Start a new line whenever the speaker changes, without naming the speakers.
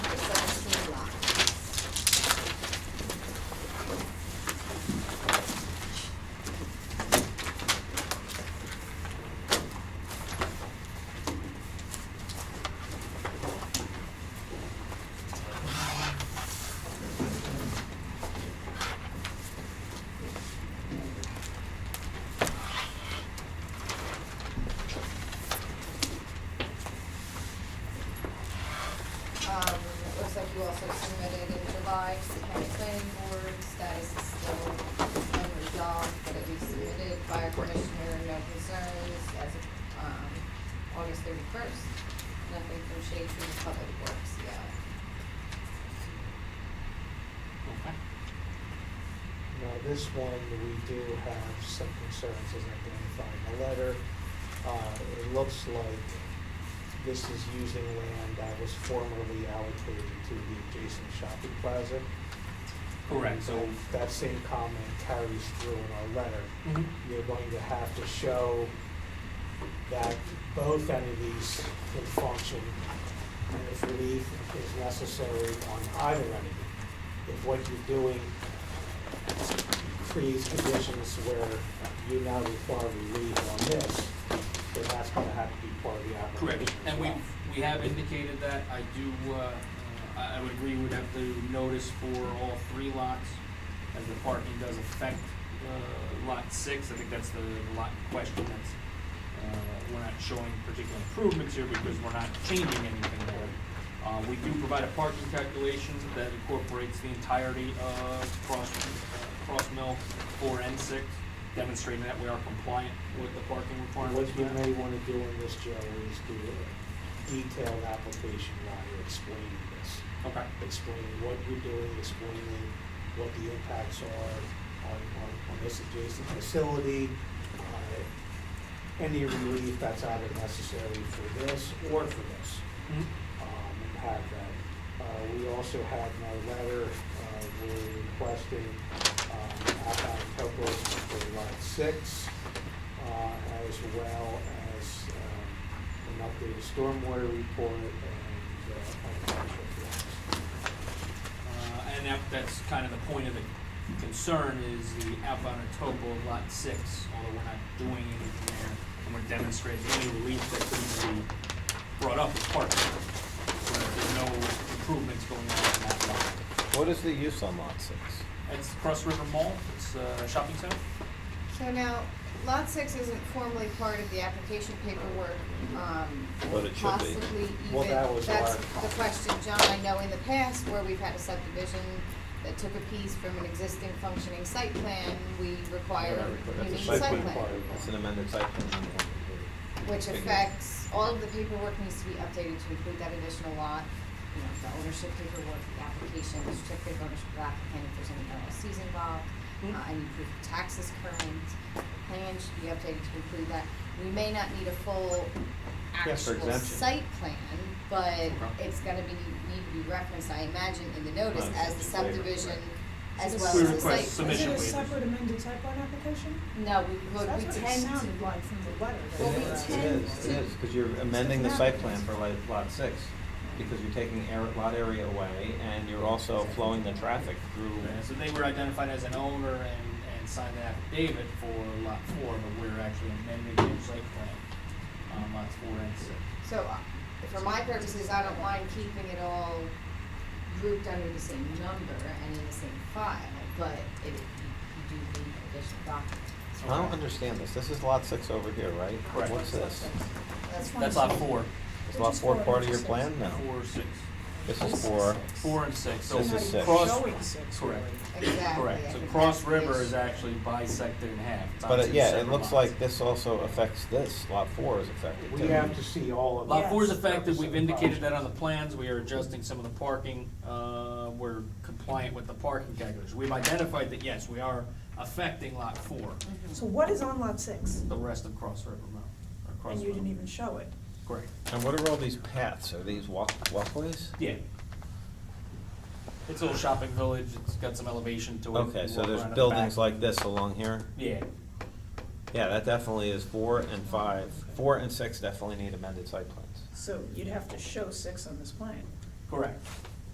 looks like you also submitted in July to the county planning board, status is still unresolved, but it was submitted by a commissioner, no concerns, as of, um, August thirty-first. Nothing from Shade Tree Public Works yet.
Okay.
Now, this one, we do have some concerns as identified in the letter. Uh, It looks like this is using land that was formerly allocated to the adjacent shopping plaza.
Correct, so,
And That same comment carries through in our letter.
Mhm.
You're going to have to show that both entities can function and if relief is necessary on either entity. If what you're doing creates conditions where you now require relief on this, then that's gonna have to be part of the application
correct,
as
and we,
well.
we have indicated that, I do, uh, uh, I, I would agree, we'd have to notice for all three lots, as the parking does affect, uh, lot six, I think that's the lot in question, that's, uh, we're not showing particular improvements here because we're not changing anything there. Uh, we do provide a parking calculation that incorporates the entirety of Cross, uh, Cross Mill four and six, demonstrating that we are compliant with the parking
What
requirements.
you may wanna do in this, Joe, is do a detailed application while you're explaining this.
Okay.
explaining what you're doing, explaining what the impacts are on, on, on this adjacent facility, uh, any relief that's either necessary for this or for this,
Mhm.
um, and have that. Uh, we also had in our letter, uh, we're requesting, um, outbound topos for lot six, uh, as well as, um, an updated stormwater report and, uh, financial plans.
Uh, and that, that's kind of the point of the concern is the outbound and topo of lot six, although we're not doing anything there, and we're demonstrating any relief that could be brought up as part of it. Where there's no improvements going on in that lot.
What is the use on lot six?
It's Cross River Mall, it's uh, a shopping center.
So now, lot six isn't formally part of the application paperwork, um,
But it should be.
possibly even.
Well, that was
That's
our-
the question, John, I know in the past where we've had a subdivision that took a piece from an existing functioning site plan, we require
That's
a
a
unique
site
site
plan
plan.
part.
It's an amended site plan.
Which
Big deal.
affects, all of the paperwork needs to be updated to include that additional lot, you know, the ownership paperwork, the application, the certificate of ownership of the applicant, if there's any LLCs involved.
Hmm?
Mhm.
Uh, I need proof of taxes current, the plan should be updated to include that. We may not need a full
Yeah, for
actual
exemption.
site plan, but
Okay.
it's gonna be, need to be referenced, I imagine, in the notice
Right,
as the
it's a waiver,
subdivision,
right.
as
So
well
this-
as the
We
site.
request submission
plan.
Is it a
waivers.
separate amended type one application?
No, we,
So
we
That's what it
tend to
sounded like from the letter. that
Well,
they
we
were
It
asking.
tend
is,
to-
it is, because you're amending the site plan for like lot six, because you're taking air, lot area away, and you're also flowing the traffic
And so
through.
they were identified as an owner and, and signed an affidavit for lot four, but we're actually amending their site plan on lots four and six.
So, uh, for my purposes, I don't mind keeping it all grouped under the same number and in the same file, but it, you do need additional documents.
I don't understand this, this is lot six over here, right?
Correct.
What's this?
That's
That's lot four,
Is lot four part of your plan? No.
four or six.
This is four,
Four and six, so
This is
it's
six.
Not even
cross,
showing six, really.
correct.
Exactly. I
correct, so
think
Cross
that's the
River is
issue.
actually bisected in half. It's
but uh,
obviously
yeah, it
separate
looks
lots.
like this also affects this, lot four is affected
We
too.
have to see all of that.
Lot four is
Yes.
affected, we've indicated that on the plans, we are adjusting some of the parking, uh, we're compliant with the parking calculation. We've identified that, yes, we are affecting lot four,
So what is on lot six?
the rest of Cross River Mountain, or Cross
And you didn't
River.
even show it.
Correct,
And what are all these paths, are these walk, walkways?
yeah. It's a little shopping village, it's got some elevation to it.
Okay,
You
so
walk
there's
around the
buildings
back.
like this along here?
Yeah,
Yeah, that definitely is four and five. Four and six definitely need amended site plans.
So you'd have to show six on this plan.
correct.